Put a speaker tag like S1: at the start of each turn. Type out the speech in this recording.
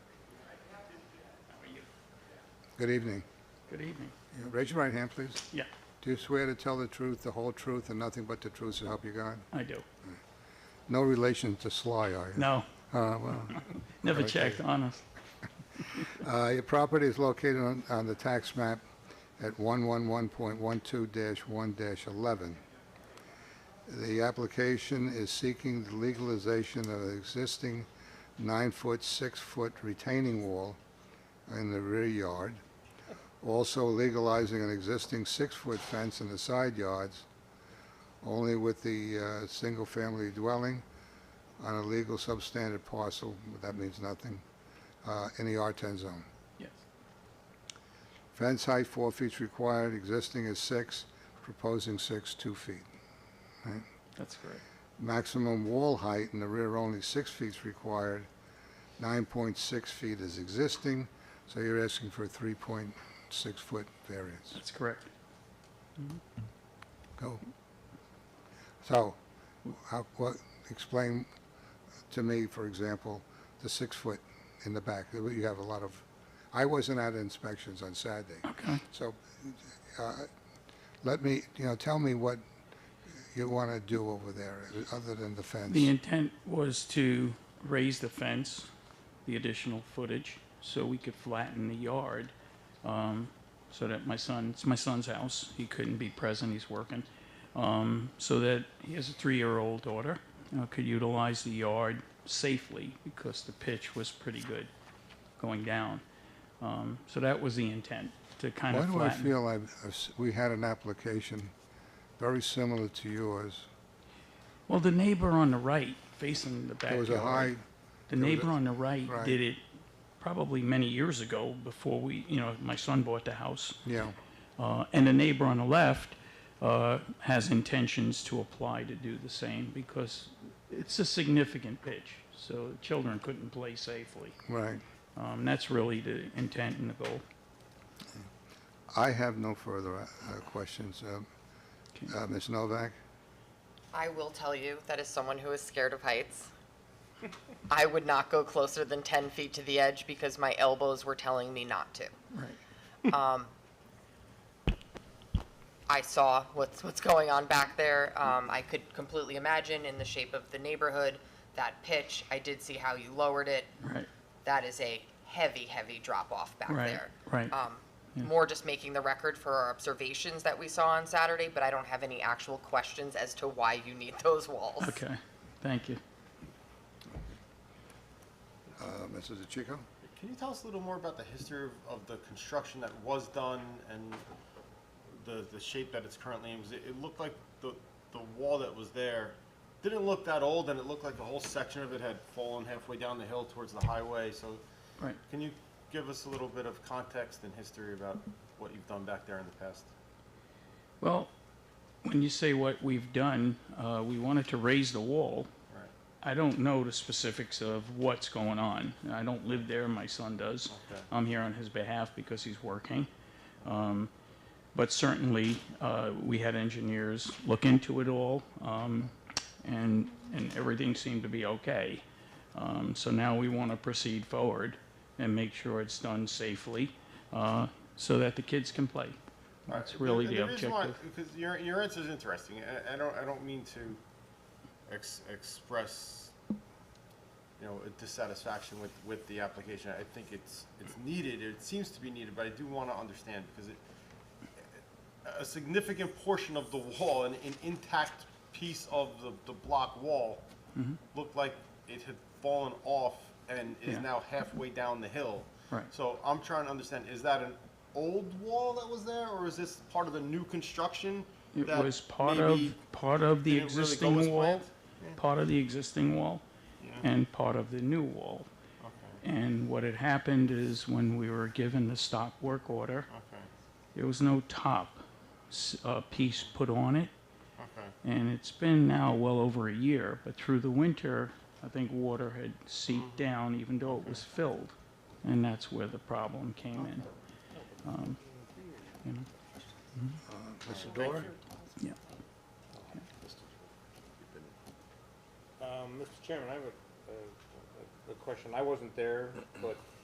S1: Good evening.
S2: Good evening.
S1: Yeah, Raise your right hand, please.
S2: Yeah,
S1: Do you swear to tell the truth, the whole truth, and nothing but the truth to help you God?
S2: I do.
S1: No relation to Sly, are you?
S2: No,
S1: Uh, well,
S2: never checked, honest.
S1: Uh, Your property is located on- on the tax map at 111.12-1-11. The application is seeking the legalization of an existing nine-foot, six-foot retaining wall in the rear yard, also legalizing an existing six-foot fence in the side yards, only with the uh, single-family dwelling on a legal substandard parcel, that means nothing, uh, in the R10 zone.
S2: Yes,
S1: Fence height, four feet required, existing is six, proposing six, two feet.
S2: that's correct.
S1: Maximum wall height in the rear only six feet is required, 9.6 feet is existing, so you're asking for a 3.6-foot variance.
S2: That's correct.
S1: Go. So, how, what, explain to me, for example, the six-foot in the back, you have a lot of, I wasn't at inspections on Saturday.
S2: Okay.
S1: So, uh, let me, you know, tell me what you want to do over there, other than the fence.
S2: The intent was to raise the fence, the additional footage, so we could flatten the yard, um, so that my son, it's my son's house, he couldn't be present, he's working. Um, so that he has a three-year-old daughter, uh, could utilize the yard safely, because the pitch was pretty good going down. Um, so that was the intent, to kind
S1: Why
S2: of
S1: do I
S2: flatten.
S1: feel I've, I've s- we had an application very similar to yours?
S2: Well, the neighbor on the right, facing the
S1: There
S2: backyard.
S1: was a high,
S2: The
S1: There was
S2: neighbor
S1: a-
S2: on the right
S1: right.
S2: did it probably many years ago before we, you know, my son bought the house.
S1: you know,
S2: Uh, and the neighbor on the left uh, has intentions to apply to do the same because it's a significant pitch. So children couldn't play safely.
S1: right.
S2: Um, that's really the intent and the goal.
S1: I have no further uh, questions. Um,
S2: Okay.
S1: uh, Ms. Novak?
S3: I will tell you that as someone who is scared of heights, I would not go closer than 10 feet to the edge because my elbows were telling me not to.
S2: Right.
S3: Um, I saw what's, what's going on back there. Um, I could completely imagine in the shape of the neighborhood, that pitch. I did see how you lowered it.
S2: Right.
S3: That is a heavy, heavy drop off back
S2: Right,
S3: there.
S2: right.
S3: Um,
S2: Yeah.
S3: More just making the record for our observations that we saw on Saturday, but I don't have any actual questions as to why you need those walls.
S2: Okay. Thank you.
S1: Uh, Mrs. DeChico?
S4: Can you tell us a little more about the history of, of the construction that was done and the, the shape that it's currently in? 'Cause It, it looked like the, the wall that was there didn't look that old and it looked like a whole section of it had fallen halfway down the hill towards the highway. So
S2: Right.
S4: can you give us a little bit of context and history about what you've done back there in the past?
S2: Well, when you say what we've done, uh, we wanted to raise the wall
S4: Right.
S2: I don't know the specifics of what's going on. I don't live there, my son does.
S4: Okay.
S2: I'm here on his behalf because he's working. Um, But certainly, uh, we had engineers look into it all, um, and, and everything seemed to be okay. Um, So now we want to proceed forward and make sure it's done safely, uh, so that the kids can play. That's really the
S4: reason why-
S2: objective.
S4: Because your, your answer is interesting. I, I don't, I don't mean to ex- express, you know, a dissatisfaction with, with the application. I think it's, it's needed, it seems to be needed, but I do want to understand because it, a significant portion of the wall, an, an intact piece of the, the block wall
S2: Mm-hmm.
S4: looked like it had fallen off and is
S2: Yeah.
S4: now halfway down the hill.
S2: Right.
S4: So I'm trying to understand, is that an old wall that was there, or is this part of the new construction?
S2: It
S4: that
S2: was part of,
S4: maybe
S2: part of the
S4: didn't really go
S2: existing
S4: as
S2: wall,
S4: planned?
S2: part of the existing wall, and part of the new wall. And what had happened is when we were given the stop work order,
S4: Okay,
S2: there was no top s- uh, piece put on it.
S4: okay,
S2: And it's been now well over a year, but through the winter, I think water had seeped
S4: Mm-hmm.
S2: down even though it was filled. And that's where the problem came in.
S1: Mr. Dora?
S2: Yeah.
S5: Um, Mr. Chairman, I have a, a- a- a question. I wasn't there, but